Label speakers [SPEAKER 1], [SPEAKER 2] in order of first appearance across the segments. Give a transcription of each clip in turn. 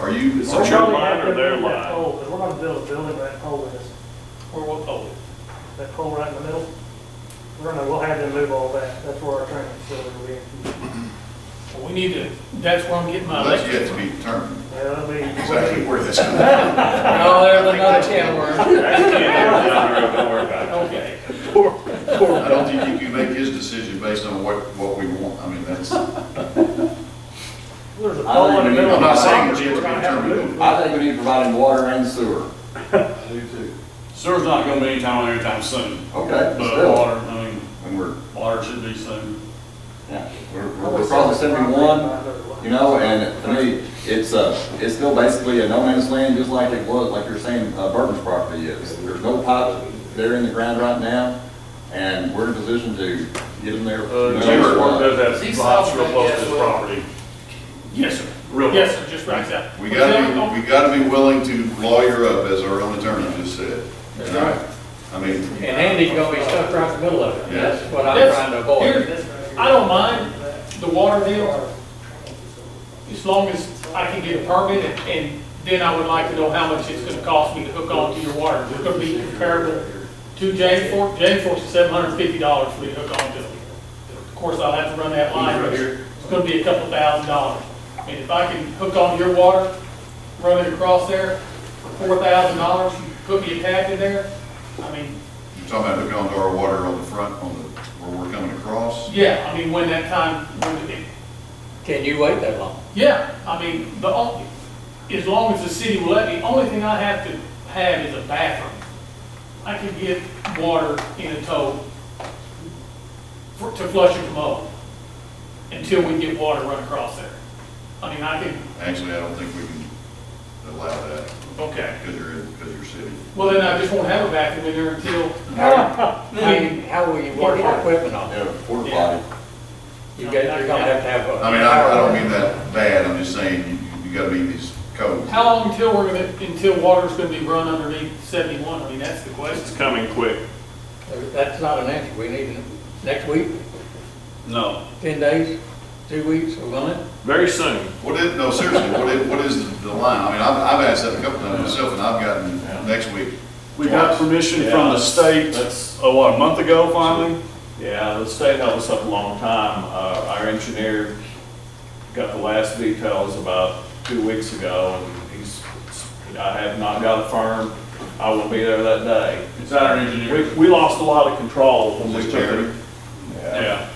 [SPEAKER 1] Are you, is
[SPEAKER 2] We're
[SPEAKER 1] it your
[SPEAKER 3] Sure.
[SPEAKER 2] probably
[SPEAKER 1] line
[SPEAKER 2] have
[SPEAKER 1] or
[SPEAKER 2] to
[SPEAKER 1] their
[SPEAKER 2] move that
[SPEAKER 1] line?
[SPEAKER 2] pole, 'cause we're gonna build a building where that pole is,
[SPEAKER 3] Where what pole is?
[SPEAKER 2] that pole right in the middle. We're gonna, we'll have them move all that, that's where our training facility will be.
[SPEAKER 3] Well, we need to, that's where I'm getting my
[SPEAKER 4] That's yet
[SPEAKER 3] electric.
[SPEAKER 4] to be determined,
[SPEAKER 2] Yeah, that'll be.
[SPEAKER 4] exactly where this comes from.
[SPEAKER 5] No, there's another can word.
[SPEAKER 1] That's the end, John, don't worry about it.
[SPEAKER 3] Okay.
[SPEAKER 4] I don't think you can make his decision based on what, what we want, I mean, that's, I'm
[SPEAKER 2] There's a pole in the middle. of
[SPEAKER 4] not
[SPEAKER 2] the
[SPEAKER 4] saying it's yet
[SPEAKER 2] property,
[SPEAKER 4] to
[SPEAKER 2] we're
[SPEAKER 4] be
[SPEAKER 2] gonna have to move
[SPEAKER 4] determined.
[SPEAKER 2] it.
[SPEAKER 6] I think we need to provide him water and sewer.
[SPEAKER 3] Sewer's not gonna be anytime there anytime soon,
[SPEAKER 7] Uh,
[SPEAKER 6] Okay,
[SPEAKER 3] but
[SPEAKER 6] still,
[SPEAKER 3] water, I mean,
[SPEAKER 4] And we're,
[SPEAKER 3] water should be soon.
[SPEAKER 6] yeah.
[SPEAKER 4] we're,
[SPEAKER 2] I
[SPEAKER 6] We're
[SPEAKER 2] would say
[SPEAKER 6] across
[SPEAKER 2] the property
[SPEAKER 6] seventy-one,
[SPEAKER 2] line doesn't lie.
[SPEAKER 6] you know, and to me, it's, uh, it's still basically a no man's land, just like it was, like you're saying, uh, Burton's property is. There's no pipe there in the ground right now, and we're in a position to get them there.
[SPEAKER 7] Uh,
[SPEAKER 6] no
[SPEAKER 7] Jimmy
[SPEAKER 6] matter what.
[SPEAKER 7] does have
[SPEAKER 5] These
[SPEAKER 7] some lots real
[SPEAKER 5] sounds
[SPEAKER 7] close to
[SPEAKER 5] like
[SPEAKER 7] his
[SPEAKER 5] that, well-
[SPEAKER 7] property,
[SPEAKER 3] Yes, sir.
[SPEAKER 7] real
[SPEAKER 3] Yes,
[SPEAKER 7] close.
[SPEAKER 3] sir, just right there.
[SPEAKER 4] we gotta be, we gotta be willing to lawyer up, as our own attorney just said.
[SPEAKER 5] That's right.
[SPEAKER 4] I mean,
[SPEAKER 5] And Andy's gonna be stuck right in the middle of it.
[SPEAKER 4] Yeah.
[SPEAKER 5] That's what I'm trying to avoid.
[SPEAKER 3] Here, I don't mind the water deal, as long as I can get a permit, and- and then I would like to know how much it's gonna cost me to hook on to your water. It's gonna be comparable to James Fork, James Fork's seven hundred and fifty dollars for me to hook on to. Of course, I'll have to run that line right here, it's gonna be a couple thousand dollars. And if I can hook on to your water, run it across there for four thousand dollars, put me a tap in there, I mean,
[SPEAKER 4] you're talking about hooking onto our water on the front, on the, where we're coming across?
[SPEAKER 3] yeah, I mean, when that time, when it,
[SPEAKER 5] Can you wait that long?
[SPEAKER 3] Yeah, I mean, the, on- as long as the city will let me, only thing I have to have is a bathroom. I can get water in a tow for, to flush a commode until we get water run across there. I mean, I can,
[SPEAKER 4] Actually, I don't think we can allow that,
[SPEAKER 3] okay,
[SPEAKER 4] because you're, because you're city.
[SPEAKER 3] well then I just won't have a bathroom in there until,
[SPEAKER 5] How, how- how will you work your equipment on it?
[SPEAKER 6] Yeah, porta
[SPEAKER 3] Yeah.
[SPEAKER 6] potty.
[SPEAKER 5] You guys, you're gonna have to have a.
[SPEAKER 4] I mean, I, I don't mean that bad, I'm just saying, you, you gotta meet these codes.
[SPEAKER 3] how long until we're gonna, until water's gonna be run underneath seventy-one? I mean, that's the
[SPEAKER 7] It's
[SPEAKER 3] question.
[SPEAKER 7] coming quick.
[SPEAKER 5] That's not an answer. We need it next week,
[SPEAKER 7] No,
[SPEAKER 5] ten days, two weeks, a month.
[SPEAKER 7] very soon.
[SPEAKER 4] What is, no, seriously, what is, what is the line? I mean, I've, I've asked that a couple times myself, and I've gotten next week.
[SPEAKER 7] We got permission from the state, that's, oh, what, a month ago finally? Yeah, the state held us up a long time. Uh, our engineer got the last details about two weeks ago, and he's, I have not got a firm, I will be there that day.
[SPEAKER 1] It's not our
[SPEAKER 7] We,
[SPEAKER 1] engineer.
[SPEAKER 7] we lost a lot of control when we
[SPEAKER 4] Was it
[SPEAKER 7] took
[SPEAKER 4] Jeremy?
[SPEAKER 7] it. Yeah.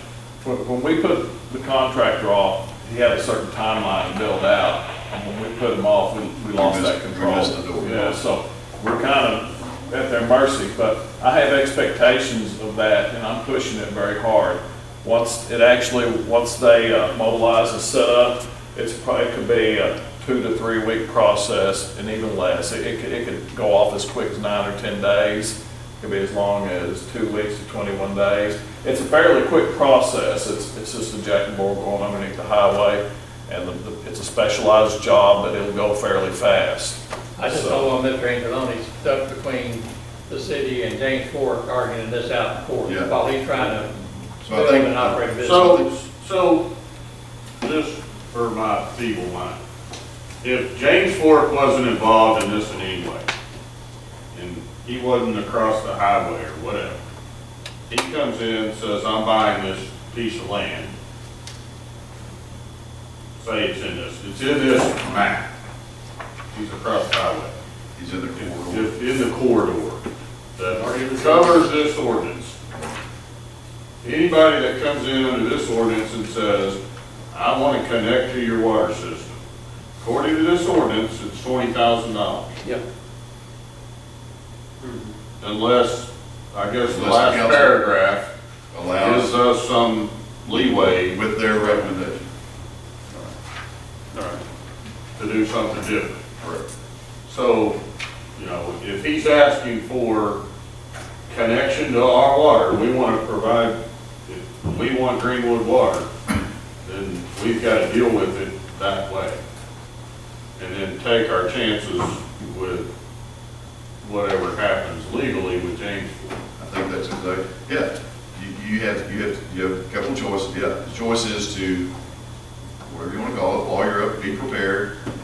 [SPEAKER 7] When, when we put the contractor off, he had a certain timeline built out, and when we put him off, we, we lost
[SPEAKER 4] missed-
[SPEAKER 7] that
[SPEAKER 4] we
[SPEAKER 7] control.
[SPEAKER 4] missed the door.
[SPEAKER 7] Yeah, so we're kind of at their mercy, but I have expectations of that, and I'm pushing it very hard. Once it actually, once they uh, mobilize and set up, it's probably, it could be a two to three week process and even less. It, it could, it could go off as quick as nine or ten days. It could be as long as two weeks to twenty-one days. It's a fairly quick process. It's, it's just a jack and bore going underneath the highway. And the- the, it's a specialized job, but it'll go fairly fast.
[SPEAKER 5] I just don't want Mr. Angeloni stuck between the city and James Fork arguing this out in court
[SPEAKER 4] Yeah.
[SPEAKER 5] while he's trying to
[SPEAKER 4] So I
[SPEAKER 5] build and
[SPEAKER 4] think,
[SPEAKER 5] operate a business.
[SPEAKER 7] So-
[SPEAKER 8] So, just for my feeble mind, if James Fork wasn't involved in this in any way, and he wasn't across the highway or whatever, he comes in and says, I'm buying this piece of land. Say it's in this, it's in this map. He's across the highway
[SPEAKER 4] he's in the corridor.
[SPEAKER 8] if in the corridor that covers this ordinance. Anybody that comes in under this ordinance and says, I want to connect to your water system, according to this ordinance, it's twenty thousand dollars.
[SPEAKER 5] Yep.
[SPEAKER 8] Unless, I guess the
[SPEAKER 4] Unless the
[SPEAKER 8] last
[SPEAKER 4] council-
[SPEAKER 8] paragraph gives
[SPEAKER 4] Allows
[SPEAKER 8] us some leeway
[SPEAKER 4] with their recommendation.
[SPEAKER 8] to do something different.
[SPEAKER 4] Correct.
[SPEAKER 8] So, you know, if he's asking for connection to our water, we want to provide, if we want Greenwood water, then we've got to deal with it that way. And then take our chances with whatever happens legally with James.
[SPEAKER 4] I think that's exactly, yeah, you, you have, you have, you have a couple of choices, yeah. The choice is to, whatever you wanna call it, lawyer up, be prepared,